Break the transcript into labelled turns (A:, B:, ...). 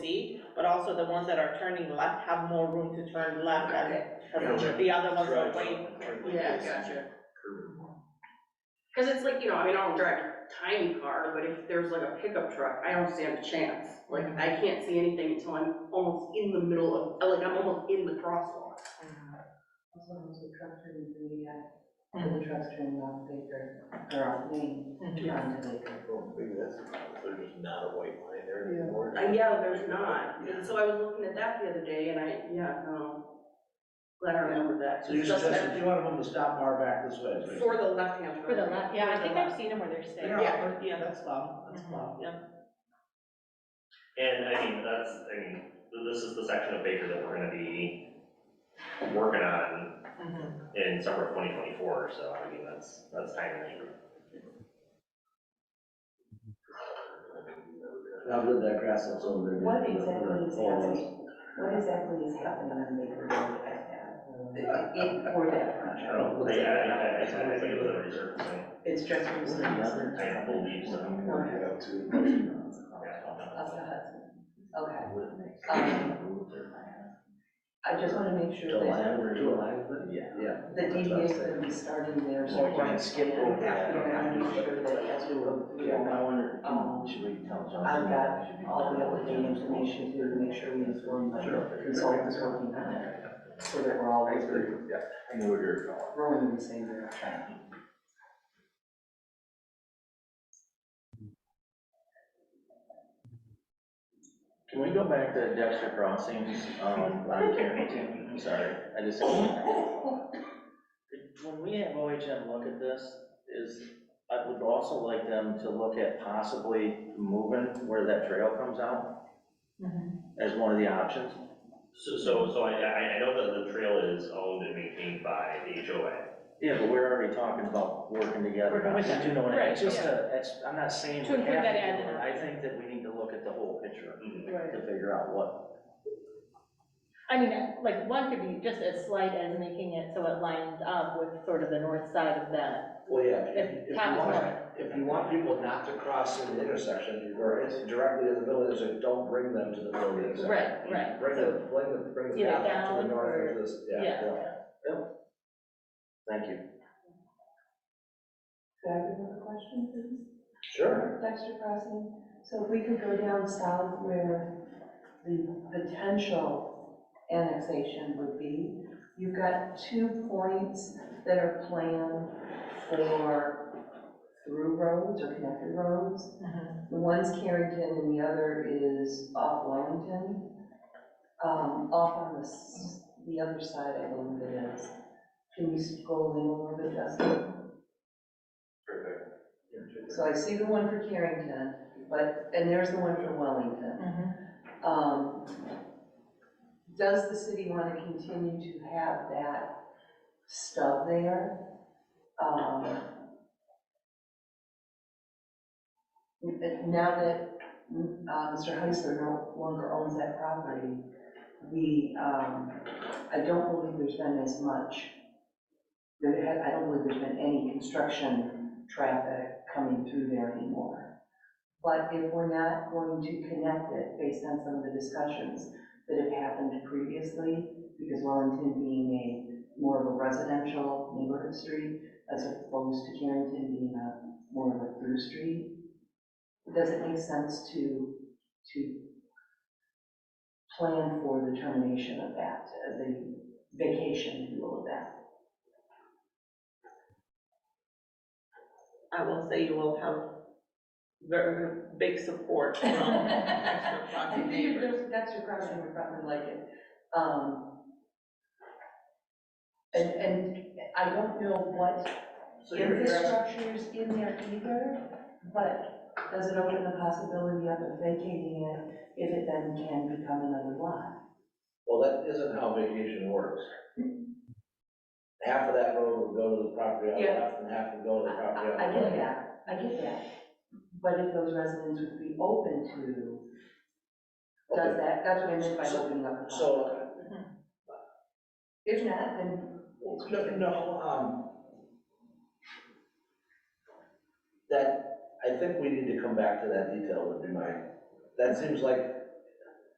A: see, but also the ones that are turning left have more room to turn left than
B: Okay.
A: the other ones are waiting.
C: Yeah,
B: Yes.
C: gotcha.
B: Curve one.
C: Cause it's like, you know, I mean, I don't drive a tiny car, but if there's like a pickup truck, I don't stand a chance. Like, I can't see anything until I'm almost in the middle of, like, I'm almost in the crosswalk.
D: Uh, As long as the truck turns in the, uh, or the truck's turning off Baker, or off Main, onto Baker.
B: Well, maybe that's, there's just not a white line there anymore.
C: Uh, yeah, there's not, and so I was looking at that the other day and I, yeah, no. Glad I remembered that.
E: So you're
C: Just that
E: suggesting, you want to move the stop bar back this way? is what you're
C: For
E: saying?
C: the left-hand turn.
D: For the left,
A: Yeah,
D: yeah,
A: I think I've seen them where they're Mm-hmm. staying.
E: Yeah,
A: Yeah.
E: that's allowed, that's allowed.
F: And I mean, that's, I mean, th- this is the section of Baker that we're gonna be working on
A: Mm-hmm.
F: in summer of twenty twenty-four, so I mean, that's, that's timely.
E: How good that grass looks over there.
D: What
E: the- the-
D: exactly is
E: the old ones.
D: happening, what exactly is happening on Baker Road right now? In, for that
E: I
D: project?
E: don't know.
F: But yeah, I, I, I, I think it was a reserve thing.
D: It's just for
E: What's
D: some
E: the other
D: reason.
F: I don't believe so.
B: Work it out to.
D: Of the Hudson, okay. Um, I just wanna make sure
E: To
D: that
E: align, to align with it? Yeah.
D: the DDA is gonna be starting there, so.
E: Well, we can skip over that.
D: Yeah, I wanna make sure that as we go through,
E: Yeah, I wonder,
D: Um,
E: should we tell Johnson?
D: I've got all the updated information too, to make sure we inform the consultants working on it, so that we're all
B: Yeah, I know where you're going.
D: rowing in the same direction.
G: Can we go back to Dexter Crossings, um, on Carrington? I'm sorry, I just. When we have OHM look at this, is, I would also like them to look at possibly moving where that trail comes out as one of the options.
F: So, so, so I, I, I know that the trail is owned and maintained by the HOA.
G: Yeah, but we're already talking about working together.
A: Working with them.
G: Do you know what I mean?
A: Right,
G: It's just a, it's, I'm not saying
A: To
G: we have to
A: include
G: do
A: that as an
G: it. I think that we need to look at the whole picture
F: Mhm.
G: to figure out what,
H: I mean, like, one could be just as slight as making it so it lines up with sort of the north side of that.
E: Well, yeah, if, if you
H: Top
E: want,
H: corner.
E: if you want people not to cross in the intersection, or it's directly to the middle of the intersection, don't bring them to the middle of the intersection.
H: Right, right.
E: Bring the, bring the, bring the
H: Either
E: path to the
H: down
E: north
H: or-
E: or to this,
H: yeah.
E: yeah, yeah.
G: thank you.
D: Could I have another question, please?
E: Sure.
D: Dexter Crossing, so if we could go down south where the potential annexation would be, you've got two points that are planned for through roads or connected roads. The one's Carrington and the other is off Wellington, um, off on the, s- the other side, I believe it is. Can you scroll in a little bit, Justin? So I see the one for Carrington, but, and there's the one for Wellington. Um, Does the city want to continue to have that stub there? Um, n- Now that uh, Mr. Heisler no longer owns that property, the, um, I don't believe there's been as much, there had- I don't believe there's been any construction traffic coming through there anymore. But if we're not going to connect it based on some of the discussions that have happened previously, because Wellington being a more of a residential neighborhood street as opposed to Carrington being a more of a through street, does it make sense to, to plan for the termination of that as a vacation, if you will, of that?
A: I will say you will have very big support from extra property neighbors.
D: That's your question, we probably like it. Um, And, and I don't know what
F: So you're addressing,
D: infrastructure is in there either, but does it open the possibility of it vacating it if it then can become another lot?
E: Well, that isn't how vacation works. Half of that road will go to the property on the
D: Yeah.
E: left, and half will go to the property on
D: I I
E: the
D: get
E: right.
D: that, I get that. But if those residents would be open to, does
E: Okay,
D: that, that's what I meant by opening up the
E: So,
D: possibility. If not, then
E: No, no, um, that, I think we need to come back to that detail, would be my, that seems like